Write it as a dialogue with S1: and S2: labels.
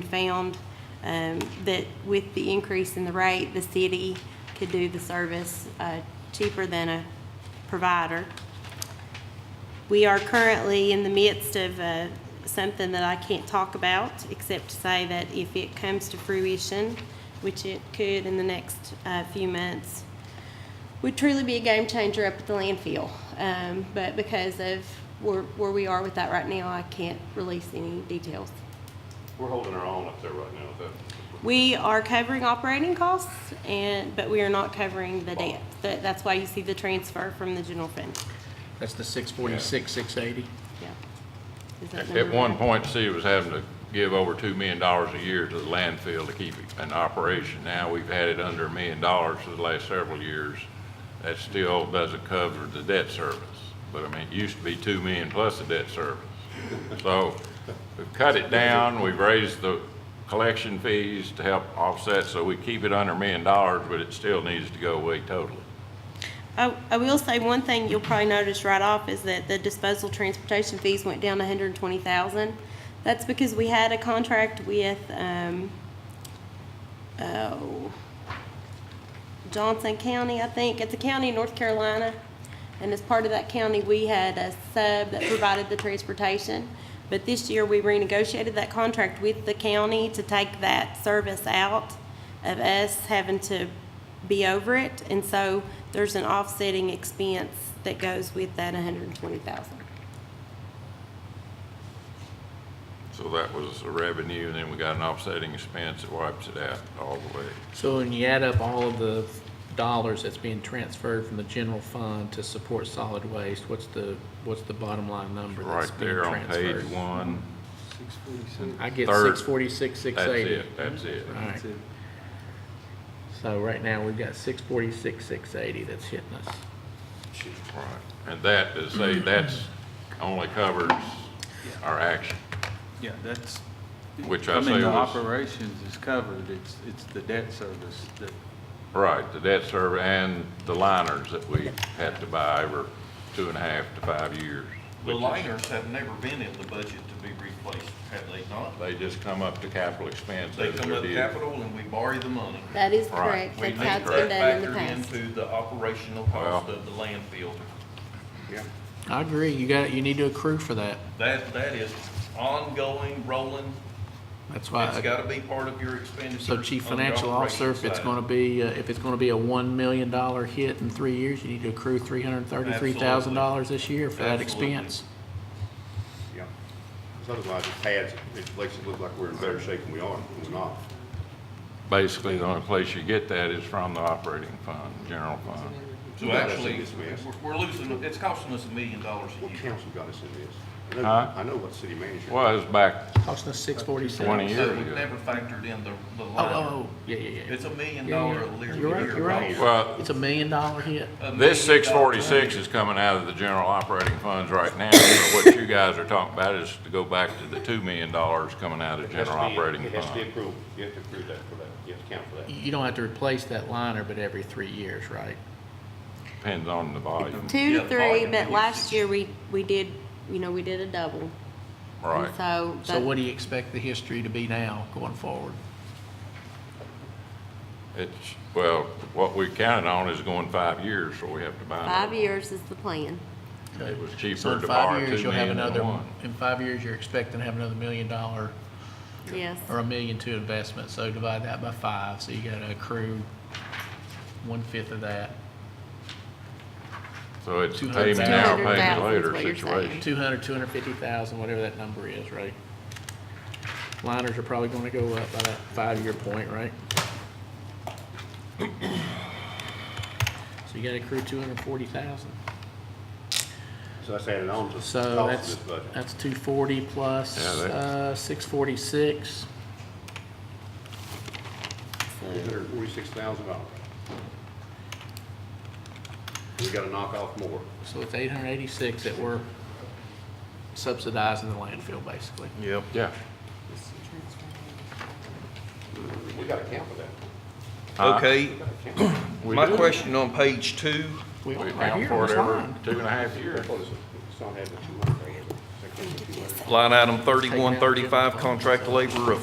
S1: found um, that with the increase in the rate, the city could do the service uh, cheaper than a provider. We are currently in the midst of uh, something that I can't talk about, except to say that if it comes to fruition, which it could in the next uh, few months, would truly be a game changer up at the landfill. Um, But because of where where we are with that right now, I can't release any details.
S2: We're holding our own up there right now, though.
S1: We are covering operating costs, and, but we are not covering the debt. That- That's why you see the transfer from the general fund.
S3: That's the six forty-six, six eighty.
S1: Yeah. Is that
S4: At
S1: number
S4: one
S1: right?
S4: point, the city was having to give over $2 million a year to the landfill to keep it in operation. Now, we've had it under a million dollars for the last several years. That still doesn't cover the debt service, but I mean, it used to be 2 million plus the debt service. So we've cut it down, we've raised the collection fees to help offset, so we keep it under a million dollars, but it still needs to go away totally.
S1: I, I will say one thing you'll probably notice right off is that the disposal transportation fees went down hundred and twenty thousand. That's because we had a contract with, um, oh, Johnson County, I think. It's a county in North Carolina. And as part of that county, we had a sub that provided the transportation. But this year, we renegotiated that contract with the county to take that service out of us having to be over it. And so there's an offsetting expense that goes with that hundred and twenty thousand.
S4: So that was a revenue, and then we got an offsetting expense that wipes it out all the way.
S3: So when you add up all of the dollars that's being transferred from the general fund to support solid waste, what's the, what's the bottom line number that's
S4: Right
S3: being
S4: there on
S3: transferred?
S4: page one,
S3: I get
S4: Third.
S3: six forty-six, six
S4: that's
S3: eighty.
S4: it, that's it.
S3: All right. So right now, we've got six forty-six, six eighty that's hitting us.
S4: Right. And that, to say, that's only covers our action,
S5: Yeah, that's,
S4: which
S5: I
S4: I
S5: mean,
S4: say
S5: the
S4: was,
S5: operations is covered, it's, it's the debt service that,
S4: right, the debt service and the liners that we had to buy over two and a half to five years.
S6: The
S4: which is-
S6: liners have never been in the budget to be replaced, have they not?
S4: They just come up to capital expense
S6: They
S4: as
S6: come
S4: they're
S6: up
S4: due.
S6: capital and we borrow the money.
S1: That is
S4: Right.
S1: correct.
S6: We
S1: That's
S6: need
S1: how
S6: that
S1: it's been done in the
S6: factored
S1: past.
S6: into the operational cost
S4: Well.
S6: of the landfill.
S3: I agree, you got, you need to accrue for that.
S6: That, that is ongoing, rolling,
S3: That's why.
S6: it's gotta be part of your expenditure.
S3: So chief
S6: on the
S3: financial officer, if it's
S6: operations
S3: gonna
S6: side.
S3: be, uh, if it's gonna be a one million dollar hit in three years, you need to accrue three hundred and thirty-three thousand dollars this year for that
S6: Absolutely.
S3: expense.
S2: Yeah. Because otherwise, it pads, it makes it look like we're in better shape than we are, and we're not.
S4: Basically, the only place you get that is from the operating fund, general fund.
S6: So actually,
S2: That's in this mess.
S6: we're- we're losing, it's costing us a million dollars a
S2: What
S6: year.
S2: council got us in this? I know-
S4: Huh?
S2: I know what city manager.
S4: Was back
S3: Costing us six forty-seven.
S4: 20 years
S6: So
S4: ago.
S6: we've never factored in the, the
S3: Oh, oh,
S6: liner.
S3: oh, yeah, yeah, yeah.
S6: It's a million
S3: Yeah, yeah.
S6: dollar a year.
S3: You're right, you're right.
S4: Well,
S3: It's a million dollar hit.
S6: A
S4: This
S6: million
S4: six
S6: dollars.
S4: forty-six is coming out of the general operating funds right now, so what you guys are talking about is to go back to the two million dollars coming out of
S2: It has to
S4: general
S2: be-
S4: operating
S2: It has to be
S4: fund.
S2: approved, you have to approve that for that, you have to count for that.
S3: You- You don't have to replace that liner, but every three years, right?
S4: Depends on the volume,
S1: Two
S6: Yeah,
S1: to three,
S6: volume
S1: but
S6: and
S1: last
S6: usage.
S1: year, we, we did, you know, we did a double. And
S4: right?
S1: So.
S3: So
S1: that-
S3: what do you expect the history to be now going forward?
S4: It's, well, what we counted on is going five years, so we have to buy. another
S1: Five
S4: one.
S1: years is the plan.
S4: It was
S3: So
S4: cheaper
S3: in
S4: to
S3: five
S4: borrow
S3: years,
S4: two
S3: you'll have
S4: million
S3: another.
S4: than one.
S3: In five years, you're expecting to have another million dollar
S1: Yes.
S3: or a million two investment, so divide that by five, so you gotta accrue one-fifth of that.
S4: So it's
S3: Two
S4: payment
S3: hundred
S4: now,
S1: thousand.
S4: payment
S1: Two hundred
S4: later
S1: thousand is what you're saying.
S4: situation.
S3: Two hundred, two hundred fifty thousand, whatever that number is, right? Liners are probably gonna go up by that five-year point, right? So you gotta accrue two hundred forty thousand.
S2: So that's added on to the cost
S3: So
S2: of
S3: that's,
S2: this budget.
S3: that's two forty plus,
S4: Yeah, that-
S3: uh, six forty-six.
S2: Two hundred and forty-six thousand dollars. We gotta knock off more.
S3: So it's eight hundred eighty-six that we're subsidizing the landfill, basically.
S6: Yep.
S4: Yeah.
S2: We gotta count for that.
S3: uh,
S4: Huh?
S6: Okay,
S4: We
S6: my
S4: do.
S6: question on page two,
S3: We
S4: We
S3: are right
S4: account
S3: here,
S4: for
S3: it's
S4: it every
S3: lined.
S4: two and a half years.
S2: What is it? It's not having two hundred thousand.
S6: line item thirty-one thirty-five, contract labor of